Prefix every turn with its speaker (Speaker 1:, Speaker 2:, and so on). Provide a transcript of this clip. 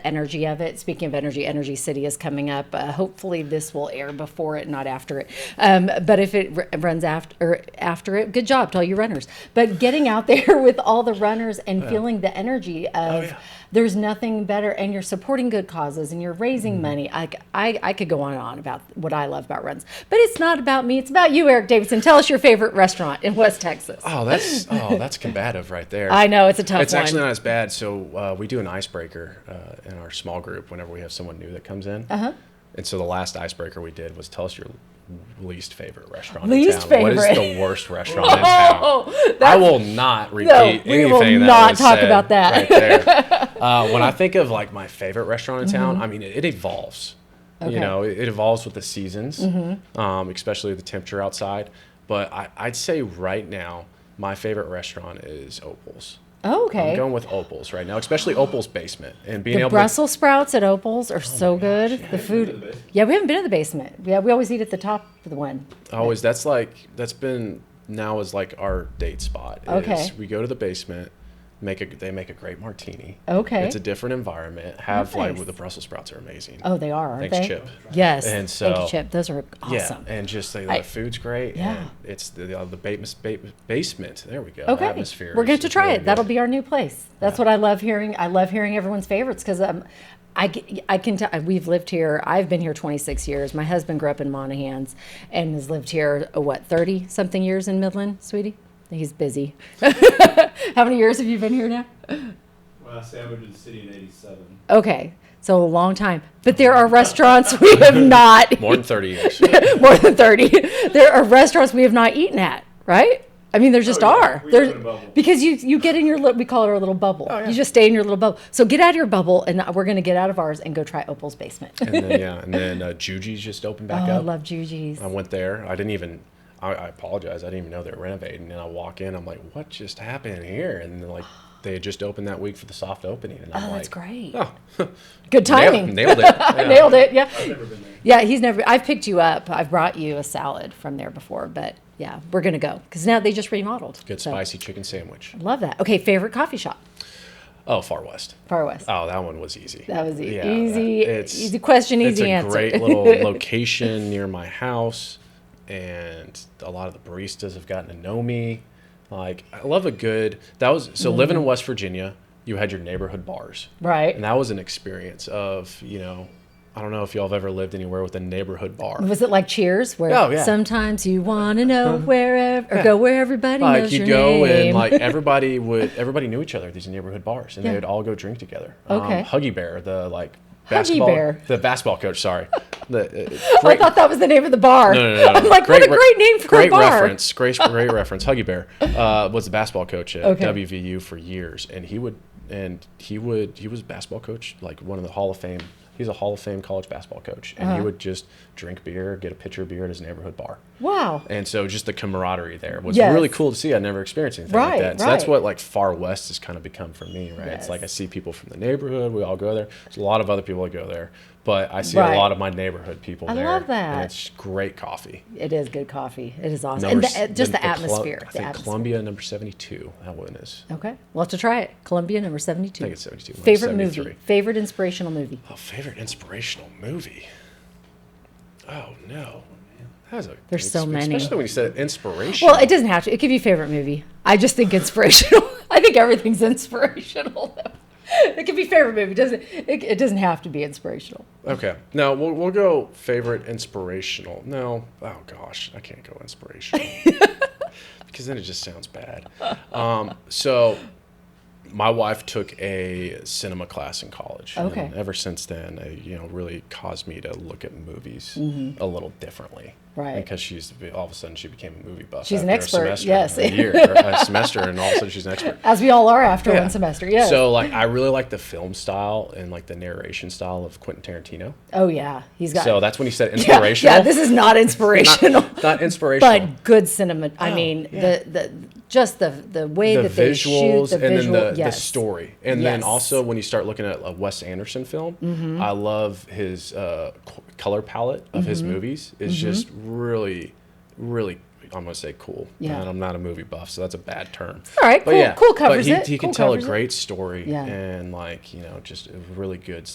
Speaker 1: energy of it. Speaking of energy, Energy City is coming up. Uh, hopefully, this will air before it, not after it. Um, but if it r- runs after or after it, good job to all you runners. But getting out there with all the runners and feeling the energy of
Speaker 2: Oh, yeah.
Speaker 1: there's nothing better, and you're supporting good causes and you're raising
Speaker 2: Mm-hmm.
Speaker 1: money. I, c- I- I could go on and on about what I love about runs, but it's not about me. It's about you, Eric Davidson. Tell us your favorite restaurant in West Texas.
Speaker 2: Oh, that's oh, that's combative right there.
Speaker 1: I know it's a tough
Speaker 2: It's
Speaker 1: one.
Speaker 2: actually not as bad. So uh, we do an icebreaker uh, in our small group whenever we have someone new that comes in. Uh-huh. And so the last icebreaker we did was tell us your least favorite restaurant.
Speaker 1: Least
Speaker 2: in town. What is
Speaker 1: favorite.
Speaker 2: the worst restaurant in town?
Speaker 1: oh,
Speaker 2: I will not repeat
Speaker 1: we
Speaker 2: anything.
Speaker 1: will
Speaker 2: that
Speaker 1: not
Speaker 2: was
Speaker 1: talk
Speaker 2: said
Speaker 1: about that.
Speaker 2: Right there. uh, when I think of like my favorite restaurant in town, I mean, it, it evolves.
Speaker 1: Mm-hmm. Okay. Mm-hmm.
Speaker 2: You know, it, it evolves with the seasons, um, especially the temperature outside. But I, I'd say right now, my favorite restaurant is Opal's.
Speaker 1: oh, okay.
Speaker 2: I'm going with Opals right now, especially Opals basement and being
Speaker 1: The
Speaker 2: able
Speaker 1: Brussels sprouts at
Speaker 2: Oh
Speaker 1: Opals are so good. The
Speaker 3: to the
Speaker 1: food.
Speaker 3: basement.
Speaker 1: Yeah, we haven't been to the basement. Yeah, we always eat at the top of the one.
Speaker 2: to always that's like that's been now is like our date spot. is
Speaker 1: Okay.
Speaker 2: We go to the basement, make a they make a great martini.
Speaker 1: Okay.
Speaker 2: It's a different environment. Have like
Speaker 1: Nice.
Speaker 2: the Brussels sprouts are amazing.
Speaker 1: Oh, they are, aren't
Speaker 2: Thanks,
Speaker 1: they?
Speaker 2: Chip.
Speaker 1: Yes.
Speaker 2: And
Speaker 1: Thank you,
Speaker 2: so-
Speaker 1: Chip. Those are awesome.
Speaker 2: Yeah, and just the, the
Speaker 1: I-
Speaker 2: food's great.
Speaker 1: Yeah.
Speaker 2: and it's the uh, the bas- ba- basement. There we go. The
Speaker 1: okay.
Speaker 2: atmosphere.
Speaker 1: We're
Speaker 2: is-
Speaker 1: going to
Speaker 2: is
Speaker 1: try
Speaker 2: really
Speaker 1: it. That'll
Speaker 2: good.
Speaker 1: be our new place. That's what I love hearing. I love hearing everyone's favorites because um, I, g- I can tell we've lived here. I've been here 26 years. My husband grew up in Monahans and has lived here, oh, what, 30 something years in Midland, sweetie? He's busy. How many years have you been here now?
Speaker 3: Well, I say I moved to the city in '87.
Speaker 1: Okay, so a long time. But there are restaurants we have not
Speaker 2: more than thirty years.
Speaker 1: more than thirty. There are restaurants we have not eaten at, right? I mean, there just
Speaker 3: Oh, yeah.
Speaker 1: are.
Speaker 3: We
Speaker 1: There-
Speaker 3: live in a bubble.
Speaker 1: because you you get in your little, we call it our little bubble. You just stay in your little bubble. So get out of your bubble, and we're gonna get out of ours and go try Opal's basement.
Speaker 2: and then yeah, and then uh, Juji's just opened
Speaker 1: oh,
Speaker 2: back
Speaker 1: I
Speaker 2: up.
Speaker 1: love Juji's.
Speaker 2: I went there. I didn't even. I, I apologize. I didn't even know they were renovating. And I walk in. I'm like, what just happened here? And like, they had just opened that week for the soft opening. And I'm
Speaker 1: Oh,
Speaker 2: like,
Speaker 1: that's great.
Speaker 2: Oh,
Speaker 1: Good timing.
Speaker 2: nailed, nailed it. Yeah.
Speaker 1: Nailed it. Yeah.
Speaker 3: I've never been there.
Speaker 1: Yeah, he's never. I've picked you up. I've brought you a salad from there before, but yeah, we're gonna go because now they just remodeled.
Speaker 2: Good
Speaker 1: So,
Speaker 2: spicy chicken sandwich.
Speaker 1: Love that. Okay, favorite coffee shop,
Speaker 2: Oh, Far West.
Speaker 1: Far West.
Speaker 3: Uh,
Speaker 2: Oh, that one was easy.
Speaker 1: That was e-
Speaker 2: Yeah,
Speaker 1: easy.
Speaker 2: that- it's-
Speaker 1: easy question,
Speaker 2: it's
Speaker 1: easy
Speaker 2: a
Speaker 1: answer.
Speaker 2: great little location near my house, and a lot of the baristas have gotten to know me. Like, I love a good. That was so living
Speaker 1: Mm-hmm.
Speaker 2: in West Virginia. You had your neighborhood bars,
Speaker 1: right.
Speaker 2: and that was an experience of you know, I don't know if y'all have ever lived anywhere with a neighborhood bar.
Speaker 1: Was it like Cheers, where
Speaker 2: Oh, yeah. Uh-huh.
Speaker 1: sometimes you want to know wherever or go where everybody
Speaker 2: Like
Speaker 1: knows
Speaker 2: you
Speaker 1: your
Speaker 2: go
Speaker 1: name?
Speaker 2: and like everybody would everybody knew each other at these neighborhood bars, and
Speaker 1: Yeah.
Speaker 2: they would all go drink together.
Speaker 1: Okay.
Speaker 2: Um, Huggy Bear, the like basketball,
Speaker 1: Bear.
Speaker 2: the basketball coach. Sorry, the uh,
Speaker 1: I thought that was the name of the bar.
Speaker 2: No, no, no, no.
Speaker 1: I'm like, what a
Speaker 2: re-
Speaker 1: great name for
Speaker 2: great
Speaker 1: a bar.
Speaker 2: reference. Great, great reference. Huggy Bear uh, was the basketball coach at
Speaker 1: Okay.
Speaker 2: WVU for years, and he would and he would he was a basketball coach like one of the Hall of Fame. He's a Hall of Fame college basketball coach, and
Speaker 1: Uh-huh.
Speaker 2: he would just drink beer, get a pitcher of beer at his neighborhood bar,
Speaker 1: Wow.
Speaker 2: and so just the camaraderie there was
Speaker 1: Yes.
Speaker 2: really cool to see. I never experienced anything
Speaker 1: Right,
Speaker 2: like that. So that's
Speaker 1: right.
Speaker 2: what like Far West has kind of become for me, right?
Speaker 1: Yes.
Speaker 2: It's like I see people from the neighborhood. We all go there. There's a lot of other people that go there, but I see
Speaker 1: Right.
Speaker 2: a lot of my neighborhood people
Speaker 1: I
Speaker 2: there.
Speaker 1: love that.
Speaker 2: And it's great coffee.
Speaker 1: It is good coffee. It is awesome.
Speaker 2: Number
Speaker 1: and the,
Speaker 2: s-
Speaker 1: uh, just the,
Speaker 2: Colu-
Speaker 1: atmosphere.
Speaker 2: I
Speaker 1: the
Speaker 2: think
Speaker 1: atmosphere.
Speaker 2: Columbia number seventy-two. That one is.
Speaker 1: Okay, we'll have to try it. Columbia number seventy-two.
Speaker 2: I think it's 72, mine's
Speaker 1: Favorite movie.
Speaker 2: 73.
Speaker 1: Favorite inspirational movie.
Speaker 2: Oh, favorite inspirational movie. Oh no, that was a.
Speaker 1: There's so many.
Speaker 2: Especially when you said inspiration.
Speaker 1: Well, it doesn't have to. It could be favorite movie. I just think inspirational. I think everything's inspirational. though. It could be favorite movie. Doesn't it, it doesn't have to be inspirational.
Speaker 2: okay, no, we'll we'll go favorite inspirational. No, oh gosh, I can't go inspirational because then it just sounds bad. Um, so. My wife took a cinema class in college. and
Speaker 1: Okay.
Speaker 2: ever since then, it, you know, really caused me to look at movies a little differently.
Speaker 1: Mm-hmm. Right.
Speaker 2: Because she's all of a sudden she became a movie buff.
Speaker 1: She's an
Speaker 2: after a
Speaker 1: expert,
Speaker 2: semester,
Speaker 1: yes.
Speaker 2: A year, or a semester, and all of a sudden she's an expert.
Speaker 1: As we all are after
Speaker 2: Yeah.
Speaker 1: one semester. Yes.
Speaker 2: So like, I really like the film style and like the narration style of Quentin Tarantino.
Speaker 1: oh yeah, he's got.
Speaker 2: So that's when he said
Speaker 1: Yeah,
Speaker 2: inspirational.
Speaker 1: Yeah, this is not inspirational,
Speaker 2: not, not inspirational. Oh,
Speaker 1: but good cinema. I mean,
Speaker 2: yeah.
Speaker 1: the the just the the way
Speaker 2: the
Speaker 1: that they shoot
Speaker 2: visuals
Speaker 1: the
Speaker 2: and
Speaker 1: visual,
Speaker 2: then the,
Speaker 1: yes.
Speaker 2: the story. And then
Speaker 1: Yes. Mm-hmm.
Speaker 2: also when you start looking at a Wes Anderson film, I love his uh, co- color palette of his
Speaker 1: Mm-hmm.
Speaker 2: movies. It's just really, really. I'm gonna say cool,
Speaker 1: Yeah.
Speaker 2: and I'm not a movie buff, so that's a bad term.
Speaker 1: All right,
Speaker 2: But
Speaker 1: cool-
Speaker 2: yeah,
Speaker 1: cool
Speaker 2: but
Speaker 1: covers
Speaker 2: he,
Speaker 1: it,
Speaker 2: He can
Speaker 1: cool
Speaker 2: tell a
Speaker 1: covers it.
Speaker 2: great story
Speaker 1: Yeah.
Speaker 2: and like you know just a really good